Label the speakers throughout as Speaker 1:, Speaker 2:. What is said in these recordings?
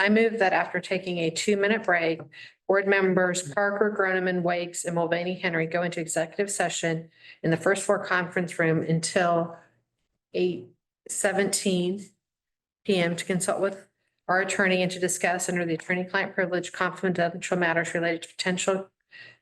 Speaker 1: I move that after taking a two-minute break, board members Parker, Groneman, Wakes, and Mulvaney Henry go into executive session in the first floor conference room until eight seventeen PM to consult with our attorney and to discuss under the attorney-client privilege confidential matters related to potential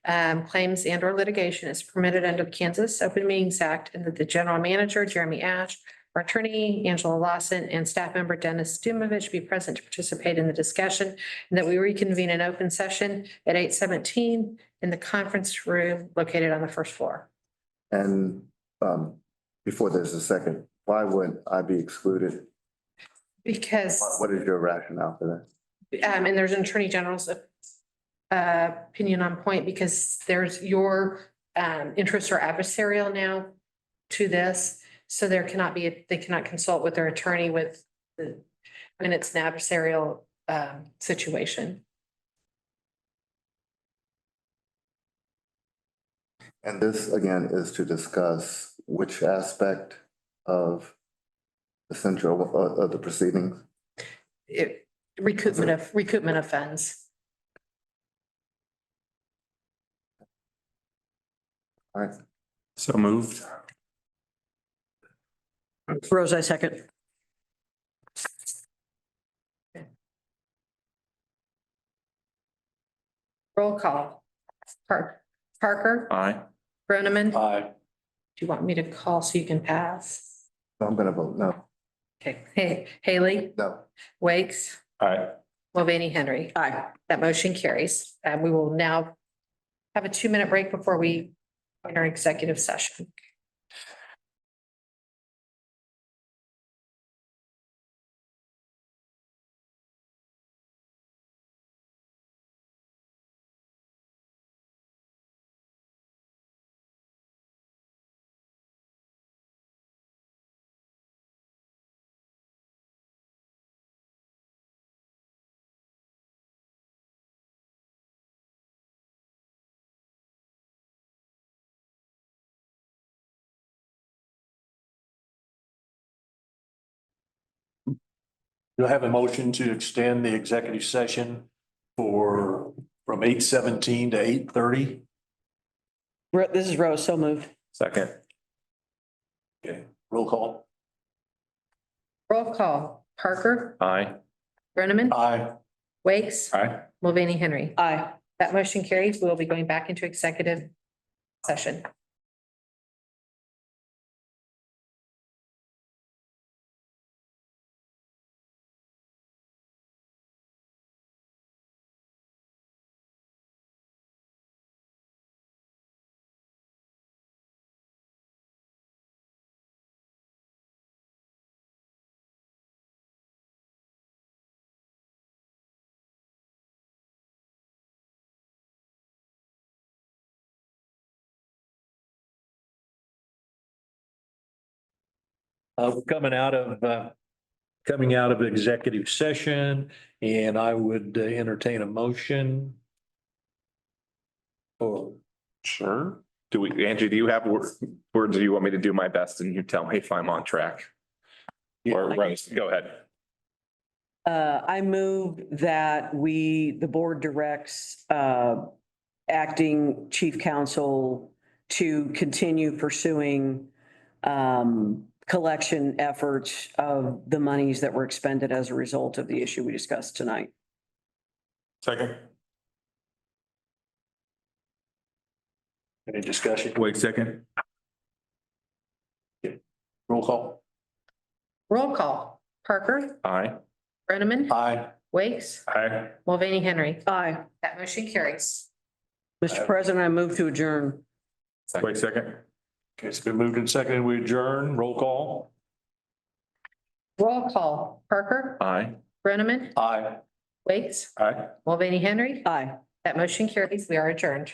Speaker 1: um, claims and or litigation is permitted under the Kansas Open Meetings Act and that the general manager, Jeremy Ash, our attorney, Angela Lawson, and staff member Dennis Dumovich be present to participate in the discussion and that we reconvene in open session at eight seventeen in the conference room located on the first floor.
Speaker 2: And um, before there's a second, why would I be excluded?
Speaker 1: Because,
Speaker 2: What- What is your rationale for that?
Speaker 1: um, and there's an attorney general's uh, opinion on point because there's your, um, interests are adversarial now to this. So there cannot be, they cannot consult with their attorney with the, and it's an adversarial, um, situation.
Speaker 2: And this again is to discuss which aspect of the central uh, of- of the proceedings.
Speaker 1: It, recoupment of, recoupment offense.
Speaker 2: All right,
Speaker 3: So moved.
Speaker 4: Rose, I second.
Speaker 1: Roll call. Par- Parker,
Speaker 3: Aye.
Speaker 1: Groneman, do
Speaker 3: Aye.
Speaker 1: you want me to call so you can pass?
Speaker 2: I'm gonna vote no,
Speaker 1: Okay, Hey, Haley,
Speaker 2: no.
Speaker 1: Wakes,
Speaker 3: Aye.
Speaker 1: Mulvaney, Henry.
Speaker 4: Aye.
Speaker 1: That motion carries. And we will now have a two-minute break before we enter executive session.
Speaker 5: Do I have a motion to extend the executive session for, from eight seventeen to eight thirty?
Speaker 4: Ro- This is Rose, so moved.
Speaker 3: Second.
Speaker 5: Okay, roll call.
Speaker 1: Roll call. Parker,
Speaker 3: Aye.
Speaker 1: Groneman,
Speaker 5: Aye.
Speaker 1: Wakes,
Speaker 3: Aye.
Speaker 1: Mulvaney, Henry.
Speaker 4: Aye.
Speaker 1: That motion carries. We will be going back into executive session.
Speaker 5: Uh, we're coming out of, uh, coming out of executive session and I would uh, entertain a motion. Or
Speaker 3: Sure. Do we, Angie, do you have wor- words? Do you want me to do my best and you tell me if I'm on track? Or Rose, go ahead.
Speaker 4: Uh, I move that we, the board directs, uh, acting chief counsel to continue pursuing, um, collection efforts of the monies that were expended as a result of the issue we discussed tonight.
Speaker 3: Second.
Speaker 5: any discussion?
Speaker 3: Wait, second.
Speaker 5: Roll call.
Speaker 1: Roll call. Parker,
Speaker 3: Aye.
Speaker 1: Groneman,
Speaker 5: Aye.
Speaker 1: Wakes,
Speaker 3: Aye.
Speaker 1: Mulvaney, Henry.
Speaker 4: Aye.
Speaker 1: That motion carries.
Speaker 4: Mr. President, I move to adjourn.
Speaker 3: Wait, second.
Speaker 5: Okay, it's been moved and seconded. We adjourn. Roll call.
Speaker 1: Roll call. Parker,
Speaker 3: Aye.
Speaker 1: Groneman,
Speaker 5: Aye.
Speaker 1: Wakes,
Speaker 3: Aye.
Speaker 1: Mulvaney, Henry.
Speaker 4: Aye.
Speaker 1: That motion carries. We are adjourned.